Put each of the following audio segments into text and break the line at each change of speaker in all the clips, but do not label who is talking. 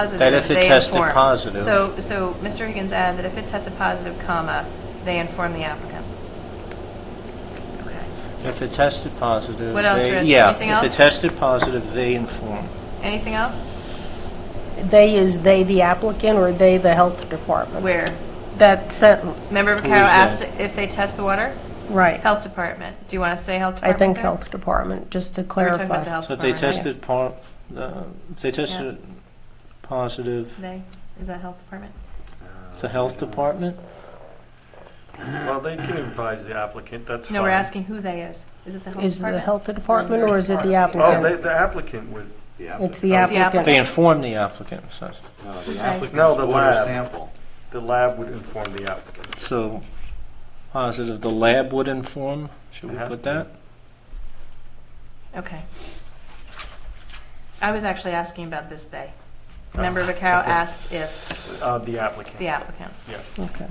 positive,
That if it
they
tested
inform.
positive.
So, so Mr. Higgins added that if it tested positive, comma, they inform the applicant. Okay.
If it tested positive,
What else,
they-
Rich?
yeah,
Anything
If
else?
it tested positive, they inform.
Anything else?
They is they the applicant or they the health department?
Where?
That sentence.
Member Vaccaro
is that?
asked if they test the water?
Right.
Health Department. Do you want to say Health
I
Department?
think
there?
health department, just to
We We're talking about the
clarify.
Health
So if they
Department. right?
tested par, uh, if they tested positive,
They, is that Health Department?
the health department?
Well, they can advise the applicant, that's fine.
No, we're asking who they is. Is it the Health Department?
Is it the health department or is it the
Oh, they-
applicant?
the applicant would,
It's the
It's the
They
applicant.
inform the applicant, so,
Uh,
No, the lab.
Sample.
the lab would inform the applicant.
so positive, the lab would inform, should
It
we
has
put
to.
that?
Okay. I was actually asking about this day.
Oh.
Member Vaccaro asked if
Uh, The applicant.
the applicant,
Okay.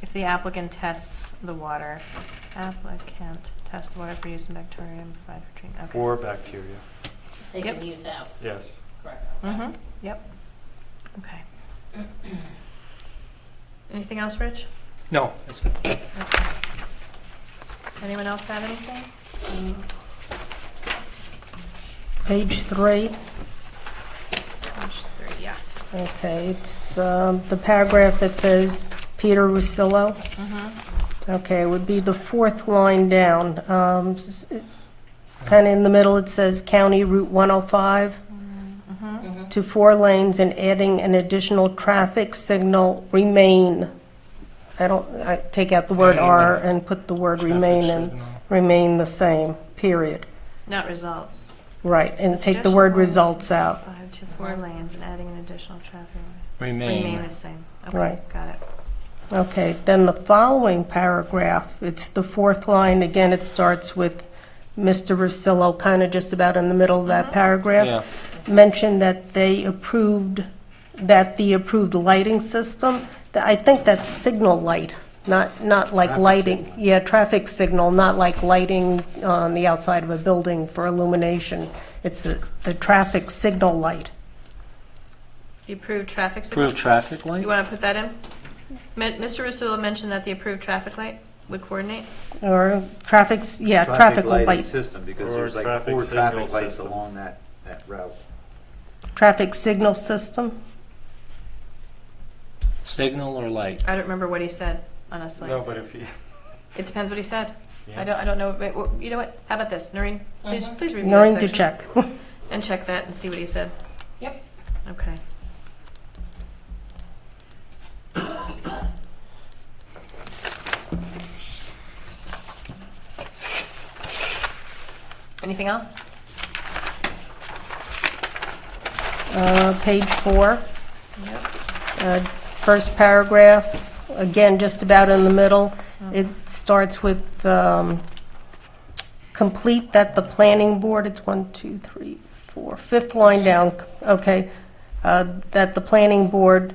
if the applicant tests the water, applicant tests the water for use in bacteria and provide for treatment. Okay.
For bacteria,
They
Yep.
can use out,
yes.
correct.
Mm-hmm, yep. Okay. Anything else, Rich?
No. that's it.
Okay. Anyone else have anything?
Page three.
Page three, yeah.
Okay, it's um, the paragraph that says Peter Russillo. Okay, it would be the fourth line down. Um, Kind of in the middle, it says County Route 105 to four lanes and adding an additional traffic signal remain. I don't, I take out the word
Yeah,
"are"
yeah.
and put the word
Traffic
"remain" and
signal.
remain the same, period.
Not results.
Right, and
The
take the word
suggestion was-
"results" out.
Five to four lanes and adding an additional traffic light. Remain
Remain.
the same. Okay,
Right.
got it.
Okay, then the following paragraph, it's the fourth line, again, it starts with Mr. Rosillo, kind of just about in the middle of that
Yeah,
paragraph, mentioned that they approved, that the approved lighting system, that- I think that's signal light, not, not like lighting. Yeah, traffic signal, not like lighting on the outside of a building for illumination. It's a- the traffic signal light.
The approved traffic signal.
approved traffic light?
You want to put that in? Me- Mr. Rusula mentioned that the approved traffic light would coordinate.
Or traffic, s- yeah, traffic light.
System, because
Or
there's like
traffic
four
signal
traffic lights
system.
along that, that route.
Traffic signal system?
Signal or light?
I don't remember what he said, honestly.
No, but if you,
It depends what he said. I
Yeah.
don't, I don't know, Wait, wh- you know what? How about this? Noreen, please, please review that
Knowing to
section.
check.
And check that and see what he said.
Yep.
Okay. Anything else?
Uh, Page four,
Yep.
uh, first paragraph, again, just about in the middle. It starts with, um, complete that the planning board, it's one, two, three, four, fifth line down, okay, uh, that the planning board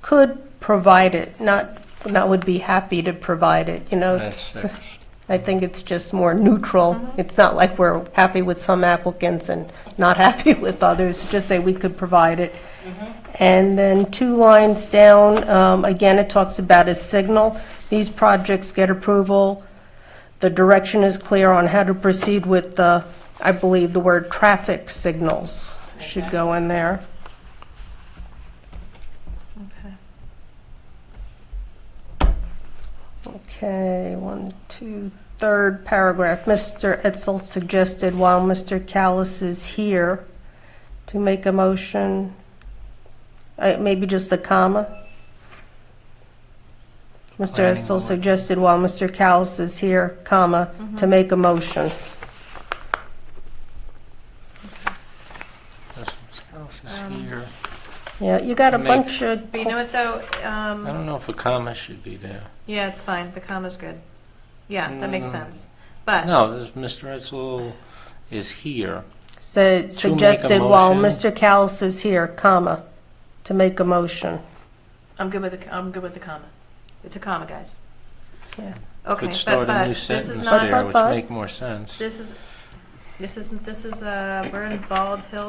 could provide it, not, not would be happy to provide it, you know?
That's
it's-
six.
I think it's just more neutral. It's not like we're happy with some applicants and not happy with others, just say we could provide it. And then two lines down, um, again, it talks about a signal. These projects get approval. The direction is clear on how to proceed with the, I believe the word traffic signals should
Okay.
go in there.
Okay.
Okay, one, two, third paragraph. Mr. Etzel suggested while Mr. Callis is here to make a motion, uh, maybe just a comma. Mr.
Planning
Etzel
board.
suggested while Mr. Callis is here, comma, to make a motion.
That's what else is
Um,
here.
Yeah, you got a
Make-
bunch of,
But you know what, though? Um,
I don't know if a comma should be there.
Yeah, it's fine. The comma's good. Yeah, that makes
Mm.
sense. But,
No, this, Mr. Etzel is here.
said,
To make a
suggested while
motion.
Mr. Callis is here, comma, to make a motion.
I'm good with the, I'm good with the comma. It's a comma, guys.
Yeah.
Okay,
Could
but,
start a
but
new
this is
sentence
not,
there, which
But-
make more sense.
this is, This isn't, this is, uh, we're in Bald Hill